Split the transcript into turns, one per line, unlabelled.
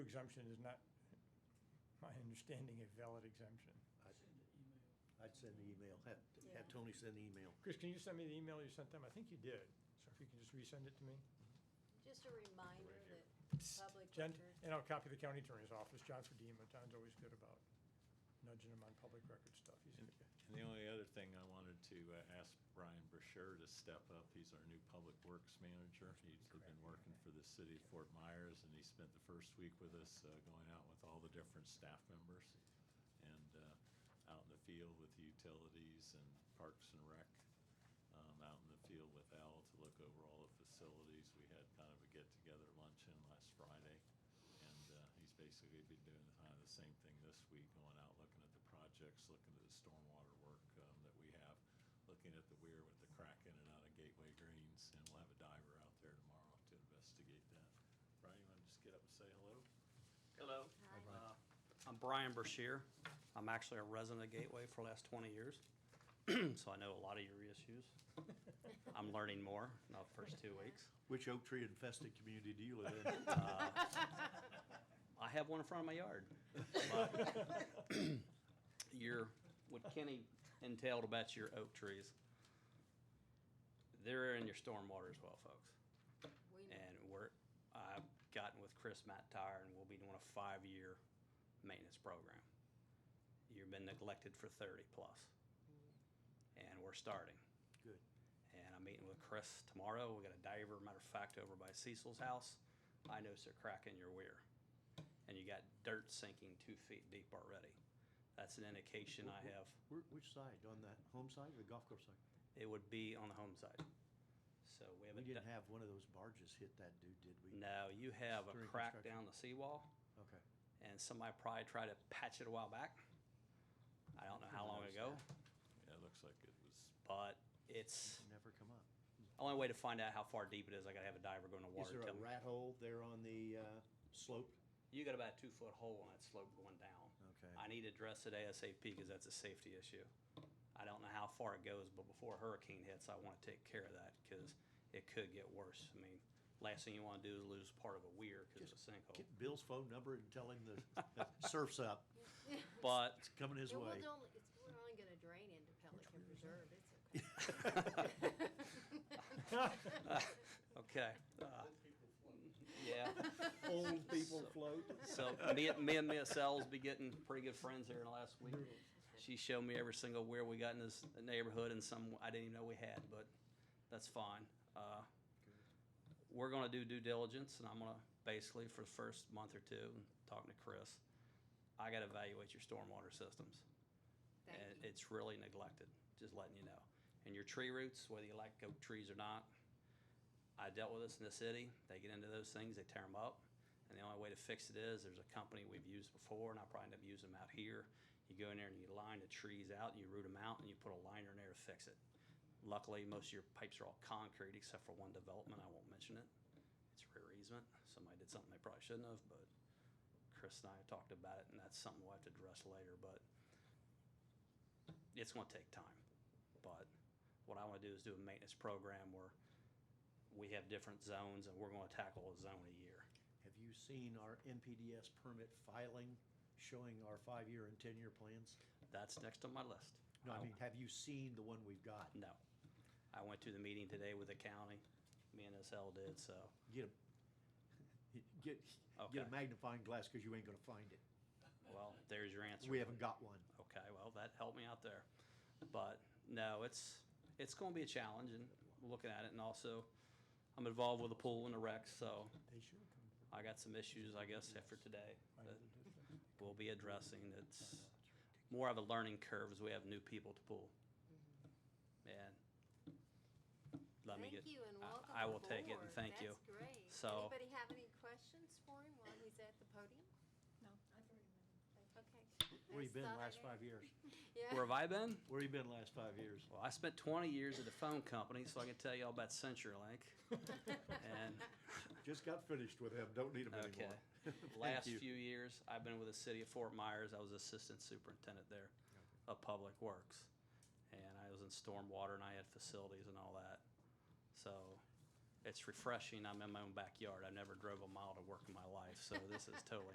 exemption is not, my understanding, a valid exemption.
I'd-
Send an email.
I'd send the email, have,
Yeah.
have Tony send the email.
Chris, can you send me the email you sent them? I think you did, so if you can just resend it to me.
Just a reminder
Right here.
that public
Jen,
record,
and I'll copy the county attorney's office, John Fadima, John's always good about nudging him on public record stuff. He's a
And
good guy.
and the only other thing I wanted to uh, ask Brian Brasher to step up, he's our new public works manager. He's been working for the city of Fort Myers, and he spent the first week with us, uh, going out with all the different staff members and uh, out in the field with utilities and parks and rec, um, out in the field with Al to look over all the facilities. We had kind of a get-together luncheon last Friday, and uh, he's basically been doing kind of the same thing this week, going out, looking at the projects, looking at the stormwater work um, that we have, looking at the weir with the crack in and out of Gateway Greens, and we'll have a diver out there tomorrow to investigate that. Brian, you want to just get up and say hello?
Hello.
Hi. Hi, Brian.
Uh, I'm Brian Brashear. I'm actually a resident of Gateway for the last 20 years, so I know a lot of your issues. I'm learning more in the first two weeks.
Which oak tree infested community do you live in? Uh,
Uh, I have one in front of my yard. But Your, what Kenny entailed about your oak trees, they're in your stormwater as well, folks.
we know,
And we're, I've gotten with Chris Mattire and we'll be doing a five-year maintenance program. You've been neglected for thirty plus. And we're starting.
Good.
And I'm meeting with Chris tomorrow. We got a diver, matter of fact, over by Cecil's house. I noticed a crack in your weir. And you got dirt sinking two feet deep already. That's an indication I have.
Where- Which side, on the home side or the golf course side?
It would be on the home side. So
We
we haven't
didn't
done.
have one of those barges hit that dude, did we?
No, you have a
During
crack
construction.
down the seawall.
Okay.
and somebody probably tried to patch it a while back. I don't know how long ago,
Yeah, it looks like it was,
but it's
Never come up.
only way to find out how far deep it is. I gotta have a diver go in the
Is
water.
there a
tell me.
rat hole there on the uh, slope?
You got about a two foot hole on that slope going down.
Okay.
I need to address it ASAP because that's a safety issue. I don't know how far it goes, but before a hurricane hits, I want to take care of that because it could get worse. I mean, last thing you want to do is lose part of a weir because of a sinkhole.
Get Bill's phone number and tell him the surf's up,
But
it's coming his
it
way.
will only, it's we're only gonna drain into Pelican Reserve, it's
okay, uh, yeah.
Old people float.
So me, and- me and Mia Sells be getting pretty good friends here in the last week. She showed me every single where we got in this neighborhood and some I didn't even know we had, but that's fine. Uh, we're gonna do due diligence and I'm gonna basically for the first month or two, talking to Chris, I gotta evaluate your stormwater systems.
okay.
And
Thank you.
it's really neglected, just letting you know. And your tree roots, whether you like oak trees or not, I dealt with this in the city. They get into those things, they tear them up. And the only way to fix it is, there's a company we've used before, and I probably end up using them out here. You go in there and you line the trees out, and you root them out, and you put a liner in there to fix it. Luckily, most of your pipes are all concrete, except for one development, I won't mention it. It's rear easement. Somebody did something they probably shouldn't have, but Chris and I talked about it, and that's something we'll have to address later, but it's gonna take time. But what I wanna do is do a maintenance program where we have different zones and we're gonna tackle a zone a year.
Have you seen our NPDS permit filing showing our five-year and ten-year plans?
That's next on my list.
No, I mean, have you seen the one we've got?
No. I went to the meeting today with the county, me and SL did, so,
Get a, get, get a
Okay.
magnifying glass, cause you ain't gonna find it.
well, there's your answer.
We haven't got one.
Okay, well, that helped me out there. But no, it's, it's gonna be a challenge and looking at it and also I'm involved with the pool and the rec, so
They should come to
I got some issues, I guess, after today
my
that
other district.
we'll be addressing. It's more of a learning curve as we have new people to pull. And let me get.
Thank you and
I-
welcome
I will take it and
aboard.
thank you.
That's great.
So-
Anybody have any questions for him while he's at the podium?
No, I've already met him.
Okay.
Where you
Nice
been
thought,
last
Eric.
five years?
Yeah.
Where have I been?
Where you been last five years?
Well, I spent twenty years at a phone company, so I can tell you all about CenturyLink. And
Just got finished with him, don't need him
Okay.
anymore.
Last
you.
few years, I've been with the city of Fort Myers. I was assistant superintendent there of public works. And I was in stormwater and I had facilities and all that. So it's refreshing. I'm in my own backyard. I never drove a mile to work in my life, so this is totally